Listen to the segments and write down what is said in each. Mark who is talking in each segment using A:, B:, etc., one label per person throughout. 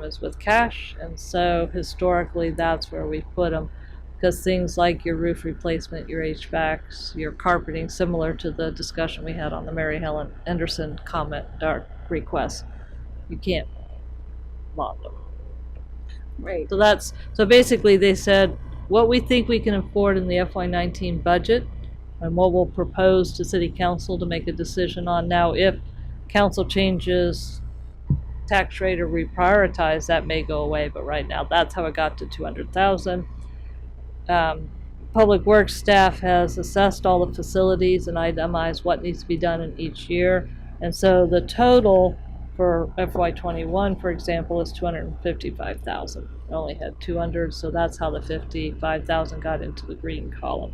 A: was with cash, and so historically that's where we put them. Because things like your roof replacement, your HVACs, your carpeting, similar to the discussion we had on the Mary Helen Anderson comment dark request, you can't lob them.
B: Right.
A: So that's, so basically they said, what we think we can afford in the FY nineteen budget and what we'll propose to city council to make a decision on now if council changes tax rate or reprioritize, that may go away, but right now, that's how it got to two hundred thousand. Um, Public Works staff has assessed all the facilities and itemized what needs to be done in each year. And so the total for FY twenty-one, for example, is two hundred and fifty-five thousand. Only had two hundred, so that's how the fifty-five thousand got into the green column.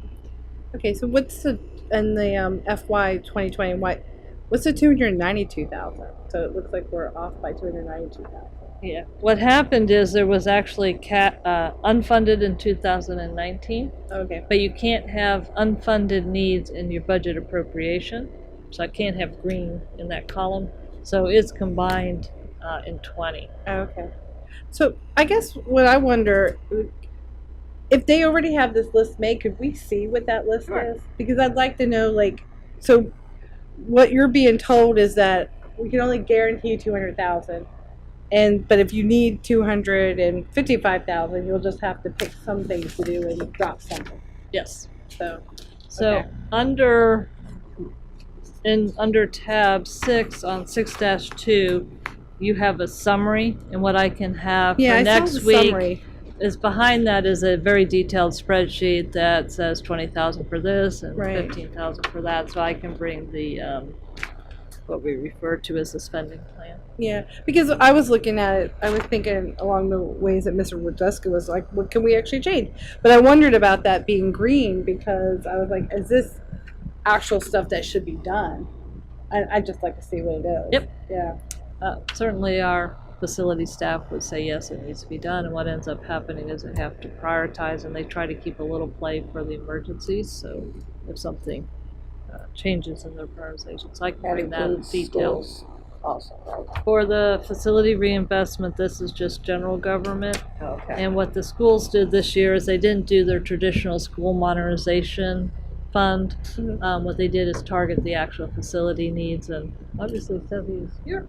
B: Okay, so what's the in the um, FY twenty twenty what what's the two hundred ninety two thousand? So it looks like we're off by two hundred ninety two thousand.
A: Yeah, what happened is there was actually ca- uh, unfunded in two thousand and nineteen,
B: Okay.
A: but you can't have unfunded needs in your budget appropriation. So I can't have green in that column, so it's combined, uh, in twenty.
B: Okay. So I guess what I wonder if they already have this list made, could we see what that list
A: Sure.
B: is? Because I'd like to know like so what you're being told is that we can only guarantee two hundred thousand and but if you need two hundred and fifty five thousand you'll just have to pick some things to do and drop something.
A: Yes.
B: So
A: So
B: Okay.
A: under, in, under tab six on six dash two, you have a summary and what I can have for
B: yeah, I saw
A: next
B: the
A: week.
B: summary.
A: is behind that is a very detailed spreadsheet that says twenty thousand for this and
B: Right.
A: fifteen thousand for that, so I can bring the, um, what we refer to as the spending plan.
B: Yeah, because I was looking at it, I was thinking along the ways that Mr. Rodeska was like, what can we actually change? But I wondered about that being green because I was like, is this actual stuff that should be done? I, I'd just like to see what it is.
A: Yep.
B: Yeah.
A: Uh, certainly our facility staff would say, yes, it needs to be done, and what ends up happening is they have to prioritize, and they try to keep a little play for the emergencies, so if something, uh, changes in their prioritization, so I can
C: That
A: bring that
C: includes
A: detail.
C: schools also, right?
A: For the facility reinvestment, this is just general government,
C: Okay.
A: And what the schools did this year is they didn't do their traditional school modernization fund.
B: Mhm.
A: Um, what they did is target the actual facility needs and obviously Stevie is here,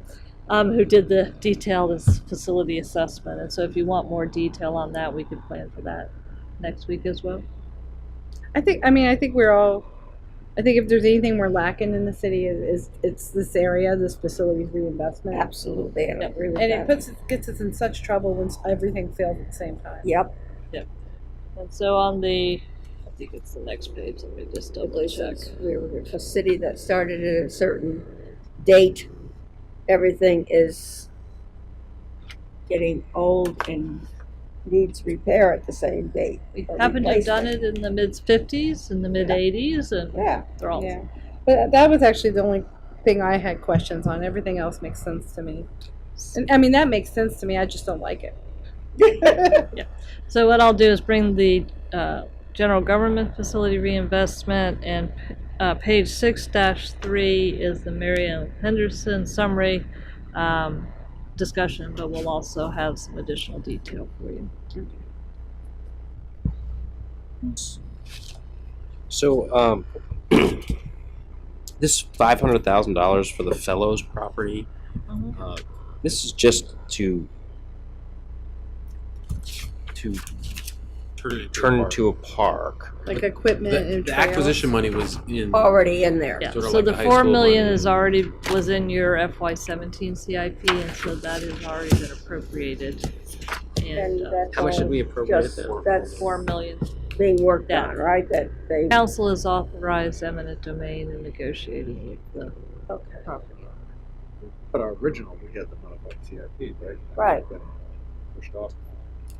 A: um, who did the detailed as- facility assessment. And so if you want more detail on that, we could plan for that next week as well.
B: I think, I mean, I think we're all, I think if there's anything we're lacking in the city is, is it's this area, this facilities reinvestment.
C: Absolutely, I agree with
B: And it
C: that.
B: puts, gets us in such trouble when everything fails at the same time.
C: Yep,
A: And so on the, I think it's the next page, let me just double
C: because
A: check.
C: it's- we were a city that started at a certain date. Everything is getting old and needs repair at the same date.
A: We
C: or
A: happened to have done
C: replacement.
A: it in the mid fifties and the mid eighties and
C: Yeah,
A: they're all
B: Yeah, but that was actually the only thing I had questions on. Everything else makes sense to me. And I mean, that makes sense to me. I just don't like it.
A: So what I'll do is bring the uh, general government facility reinvestment and uh, page six dash three is the Marion Henderson summary um, discussion, but we'll also have some additional detail for you.
D: So, um, this five hundred thousand dollars for the fellows property.
C: Mm-hmm.
A: Mhm.
D: Uh, this is just to to
E: turn it
D: turn
E: apart.
D: into a park.
B: Like equipment
E: the,
B: and
E: the
B: trails.
E: acquisition money was in
D: Oh.
C: already in there.
A: Yeah,
E: Sort of
A: so
E: like
A: the
E: the high
A: four
E: school
A: million
E: money.
A: is already, was in your FY seventeen CIP, and so that has already been appropriated. And
C: And
A: uh,
C: that's
E: how much did
C: all
E: we appropriate
C: just,
E: then?
C: that's
A: four million,
C: being worked
A: Yeah.
C: on, right? That they,
A: council has authorized eminent domain in negotiating with the property.
F: But our original, we had the modified CIP, right?
C: Right.
F: Been Pushed off.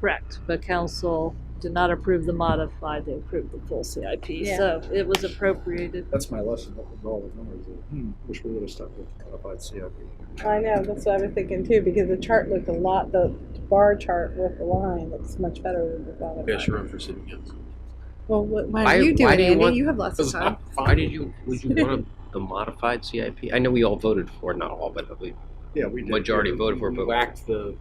A: Correct, but council did not approve the modified, they approved the full CIP,
B: Yeah.
A: so it was appropriated.
F: That's my lesson with all the numbers. is, Hmm, wish we would have stuck with modified CIP.
B: I know. That's what I was thinking too, because the chart looked a lot, the bar chart with the line looks much better than the bottom.
E: Yeah, sure, I'm for city council.
B: Well, what, what
D: Why-
B: are you doing,
D: why do you
B: Andy?
D: want-
B: you have lots of time.
D: Why did you? Would you want a, the modified CIP? I know we all voted for, it, not all, but the
F: Yeah, we did.
D: majority voted for. it,
E: We
D: But
E: whacked the